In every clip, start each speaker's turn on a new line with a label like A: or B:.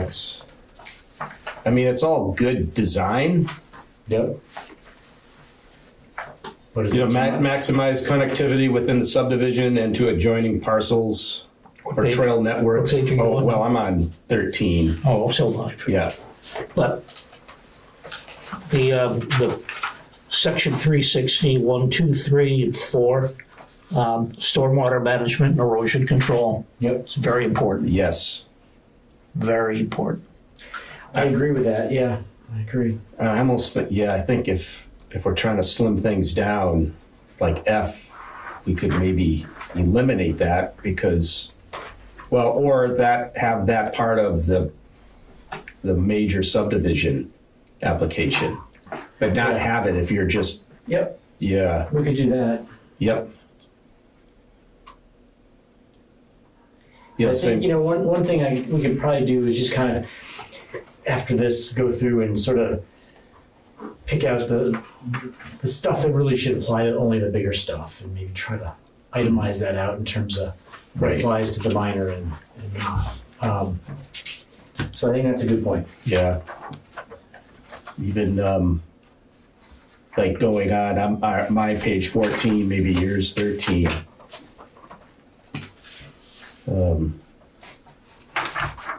A: That's, I mean, it's all good design.
B: Yep. What is
A: You know,
B: it?
A: ma- maximize connectivity within the subdivision and to adjoining parcels or
C: page?
A: trail networks.
C: What page are you
A: Oh,
C: on?
A: well, I'm on thirteen,
C: Oh, so much.
A: yeah.
C: But the, um, the section three sixty, one, two, three, and four, um, stormwater management and erosion control,
B: Yep,
C: it's very important,
A: Yes,
C: very important.
B: I agree with that, yeah, I agree.
A: I Uh, almost, thi- yeah, I think if, if we're trying to slim things down, like F, we could maybe eliminate that because, well, or that, have that part of the, the major subdivision application, but not
B: Yeah.
A: have it if you're just,
B: Yep,
A: yeah,
B: we could do that.
A: yep.
B: So
A: Yeah,
B: I think, you
A: same,
B: know, one, one thing I, we could probably do is just kind of, after this, go through and sort of pick out the, the stuff that really should apply to only the bigger stuff and maybe try to itemize that out in terms of what
A: Right.
B: applies to the minor and, and not. Um, So I think that's a good point.
A: yeah. Even, um, like going on, I'm, I- my page fourteen, maybe yours thirteen. Um,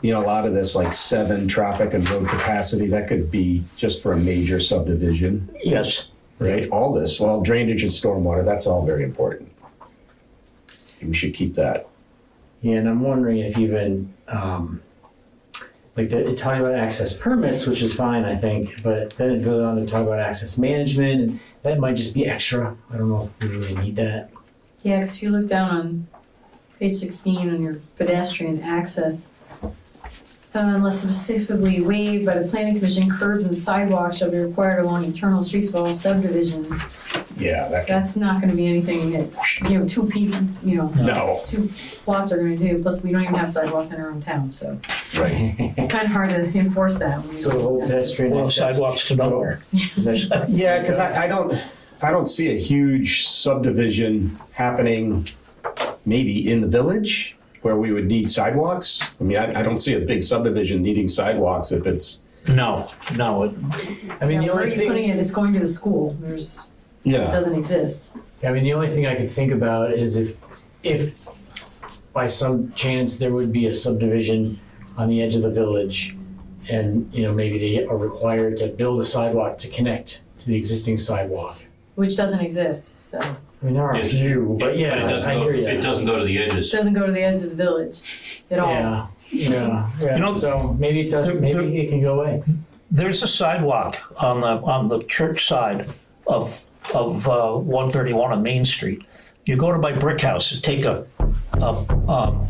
A: You know, a lot of this, like seven traffic and road capacity, that could be just for a major subdivision,
C: Yes,
A: right? All this, well, drainage and stormwater, that's all very important. We should keep that.
B: Yeah, and I'm wondering if even, um, like, the, it talks about access permits, which is fine, I think, but then it goes on to talk about access management, and that might just be extra. I don't know if we really need that.
D: Yeah, because if you look down on page sixteen on your pedestrian access, uh, unless specifically waived by the planning commission, curbs and sidewalks shall be required along internal streets of all subdivisions.
A: Yeah, that could,
D: That's not gonna be anything that, you know, two people, you know,
A: no,
D: two spots are gonna do, plus we don't even have sidewalks in our own town, so
A: right,
D: kind of hard to enforce that. when you-
B: So the whole pedestrian
C: well,
B: access-
C: sidewalks to nowhere.
B: Is that-
A: Yeah, because I, I don't, I don't see a huge subdivision happening, maybe in the village where we would need sidewalks. I mean, I, I don't see a big subdivision needing sidewalks if it's,
C: No, no, it-
B: I mean,
D: Yeah,
B: the
D: Where are
B: only
D: you putting
B: thing,
D: it? It's going to the school, there's, it
A: yeah,
D: doesn't exist.
B: I mean, the only thing I could think about is if, if by some chance there would be a subdivision on the edge of the village, and, you know, maybe they are required to build a sidewalk to connect to the existing sidewalk.
D: Which doesn't exist, so, it
B: I mean, there are a
E: Yes.
B: few, but yeah,
E: it doesn't
B: I
E: go,
B: hear you.
E: It doesn't go to the edges.
D: doesn't go to the edge of the village at all.
B: Yeah, yeah, yeah.
C: You know,
B: so maybe it doesn't.
C: there-
B: Maybe it can go away.
C: there's a sidewalk on the, on the church side of, of, uh, one thirty-one on Main Street. You go to my brick house, take a, a, um,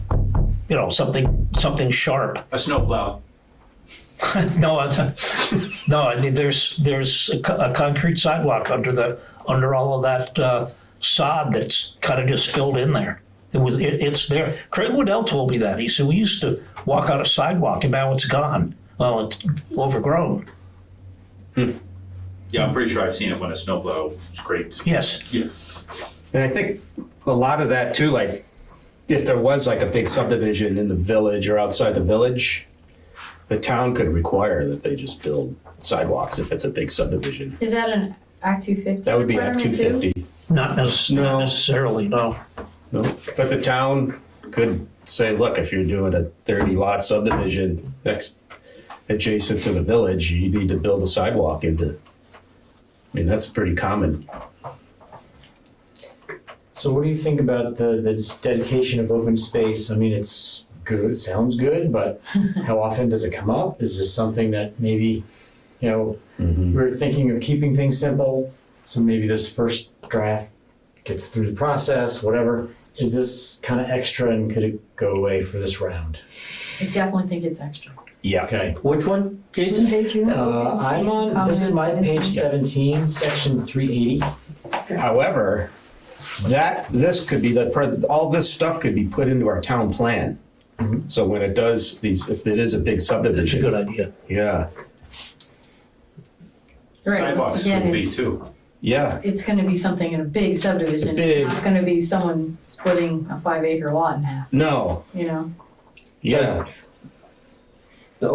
C: you know, something, something sharp,
E: A snowplow.
C: No, I- no. I mean, there's there's a, co- a concrete sidewalk under the under all of that uh, sod that's kind of just filled in there. It was it, it's there. Craig Woodell told me that. He said we used to walk on a sidewalk, and now it's gone. Well, it's overgrown.
E: Yeah, I'm pretty sure I've seen it when a snowplow scraped.
C: Yes,
E: Yeah.
A: and I think a lot of that too, like, if there was like a big subdivision in the village or outside the village, the town could require that they just build sidewalks if it's a big subdivision.
D: Is that an Act two fifty?
A: That would be Act two fifty.
C: not, necess-
A: No.
C: not necessarily. No.
A: No, but the town could say, look, if you're doing a thirty lot subdivision next, adjacent to the village, you need to build a sidewalk into. I mean, that's pretty common.
B: So, what do you think about the the dedication of open space? I mean, it's good. Sounds good, but how often does it come up? Is this something that maybe, you know,
C: Mm-hmm.
B: we're thinking of keeping things simple? So maybe this first draft gets through the process. Whatever. Is this kind of extra, and could it go away for this round?
D: I definitely think it's extra.
A: Yeah.
B: Okay.
F: Which one, Jason?
B: Uh, I'm on. This is my page seventeen, section three eighty.
A: However, that, this could be the present, all this stuff could be put into our town plan. So when it does these, if it is a big
C: Mm-hmm. That's a
A: subdivision,
C: good idea.
A: yeah,
D: Right,
E: Sidewalks
D: once again,
E: would be
D: it's,
E: too.
A: yeah,
D: it's gonna be something in a big subdivision,
A: Big.
D: it's not gonna be someone splitting a five acre lot in half,
A: no,
D: you know?
A: yeah,